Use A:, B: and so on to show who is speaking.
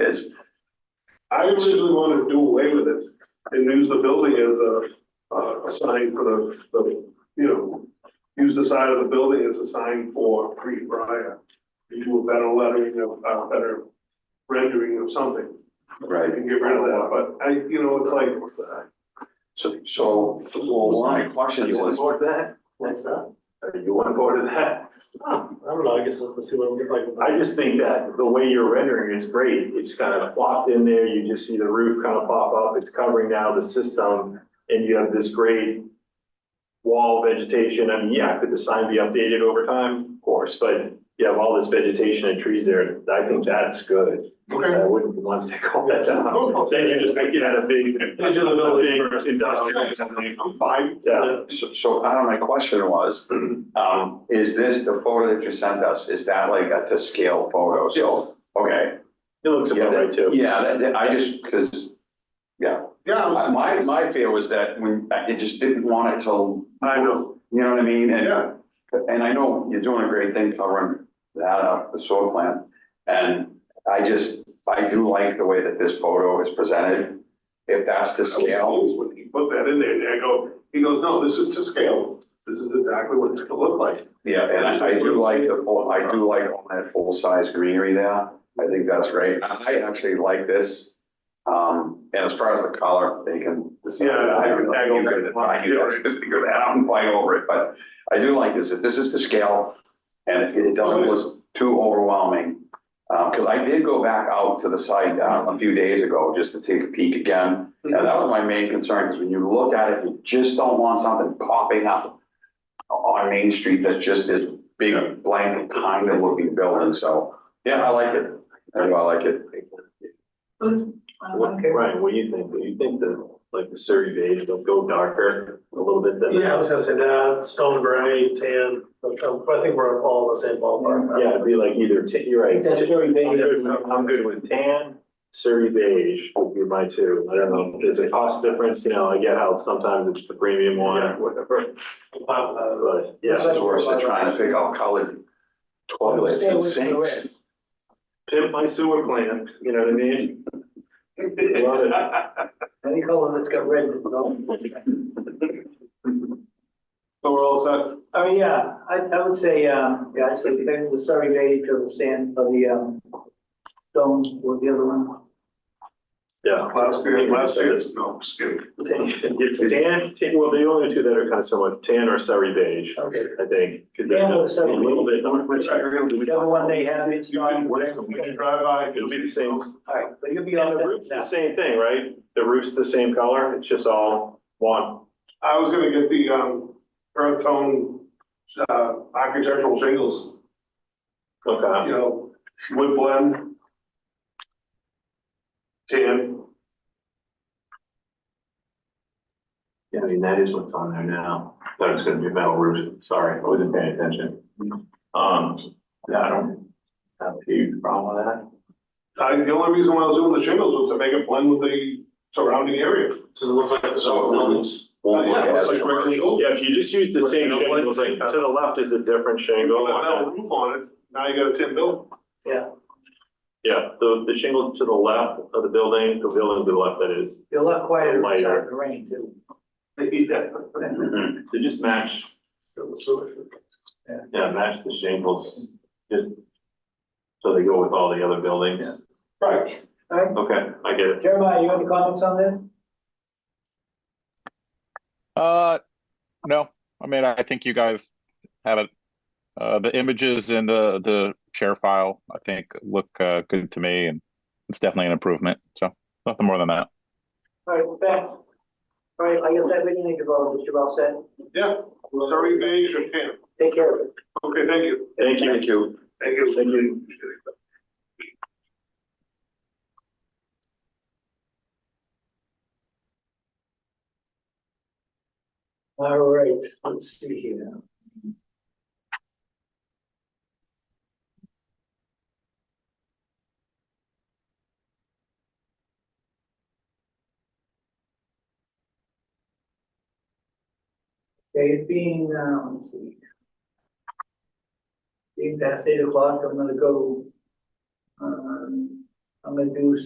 A: is,
B: I originally wanted to do away with it and use the building as a, uh, a sign for the, the, you know, use the side of the building as a sign for Creed Briar. You do a better lettering of, uh, better rendering of something. I
A: right?
B: can get rid of that, but I, you know, it's like,
A: So, so, well, one of my questions was,
C: board that? What's that?
B: Uh,
A: are you
C: I'm
A: on board?
C: bored of that. I don't know, I guess let's see what we can like.
D: I just think that the way you're rendering it's great. It's kind of plopped in there. You just see the roof kind of pop up. It's covering now the system. And you have this great wall vegetation. I mean, yeah, could the sign be updated over time? Of course, but you have all this vegetation and trees there. I think that's good. I wouldn't want to take all that
B: Oh,
D: down. Then you just make it out of big.
B: Digital village versus-
D: industrial something.
B: I'm fine.
D: Yeah.
A: So, so, I don't know, my question was, um, is this, the photo that you sent us, is that like a to scale photo?
B: Yes.
A: So, okay.
D: It looks
A: Yeah,
D: about right
A: that-
D: too.
A: Yeah, that, that- I just, because, yeah,
B: Yeah,
A: I- my, my fear was that when, I just didn't want it to,
B: I know,
A: you know what I mean? And-
B: yeah,
A: And I know you're doing a great thing covering that up, the soil plant. And I just, I do like the way that this photo is presented. If that's
B: I
A: to
B: was
A: scale,
B: always when he put that in there, and I go, he goes, no, this is to scale, this is exactly what it's gonna look like.
A: yeah, and I I do like the full, I do like all that full-size greenery there. I think that's great. And I actually like this. Um, and as far as the color, they can decide.
B: Yeah, I would- I would-
A: You could- I could actually figure that out and fight over it, but I do like this. If this is to scale and it- it doesn't look too overwhelming. Um, cause I did go back out to the site uh, a few days ago just to take a peek again. And that was my main concern, cause when you look at it, you just don't want something popping up on Main Street that's just this big blank kind of looking building. So, yeah, I like it. I do, I like it.
D: What, Ryan, what do you think? Do you think that like the Surrey beige will go darker a little bit than?
C: Yeah, I was gonna say that, stone gray, tan, but I think we're all in the same ballpark.
D: Yeah, it'd be like either, ta- you're right.
C: That's very beige.
D: I'm good with- I'm good with tan, Surrey beige would be my two. I don't know, there's a cost difference, you know, I get how sometimes it's the premium one or whatever. Uh, But
A: This
D: yeah,
A: is worse than trying to pick out colored toilets and sinks.
D: pimp my sewer plant, you know what I mean? Love it.
C: Any color that's got red, no.
B: So we're all set,
E: I mean, yeah, I, I would say, um, yeah, I'd say things the Surrey beige or the sand, or the, um, stone, or the other one.
D: Yeah.
B: last year, last year, no, skip.
D: It's tan, tan- well, the only two that are kind of somewhat tan or Surrey beige,
E: Okay.
D: I think. 'cause they're
E: Tan or
D: just a
E: Surrey
D: little bit- how much material do we-
E: The other one they have in
B: You
E: stock.
B: can, whatever, when you drive by,
D: It'll be the same.
E: All right, so you'll be
D: Yeah,
E: on
D: the roof's
E: the.
D: the same thing, right? The roof's the same color, it's just all one.
B: I was gonna get the, um, earth tone, uh, architectural shingles, you
D: Okay.
B: know, wood blend. Tan,
D: Yeah, I mean, that is what's on there now. Thought it was gonna be metal roofs, sorry, I wasn't paying attention. Um, yeah, I don't have a huge problem with that.
B: I, the only reason why I was doing the shingles was to make it blend with the surrounding area. uh,
C: Does it look like it's all
A: So it
C: buildings?
A: won't- won't look
B: Yeah, it looks
A: as
B: like regular
A: commercial.
B: shingles.
D: Yeah, if you just use the same
B: Like,
D: shingle, it's like, to the left is a different
B: You go,
D: shingle.
B: metal roof on it, now you got a tin building.
D: Yeah, the, the shingle to the left of the building, the building to the left, that is,
E: You'll look quieter in
D: Lighter.
E: the rain too.
A: Mhm.
D: they just match, yeah, match the shingles. Just, so they go with all the other buildings.
B: Right.
E: All right,
D: Okay, I get it.
E: Jeremiah, you have any comments on this?
F: Uh, no, I mean, I think you guys have it. Uh, the images in the, the share file, I think, look, uh, good to me and it's definitely an improvement. So nothing more than that.
E: All right, well, thanks. All right, I guess that we need to vote, Mr. Well said.
B: Yeah, sorry, beige or tan,
E: Take care of it.
B: okay, thank you.
D: Thank you.
A: Thank you.
B: Thank you.
D: Thank you.
E: All right, let's see here. Okay, it being, uh let's see. Being past eight o'clock, I'm gonna go. Um, I'm gonna do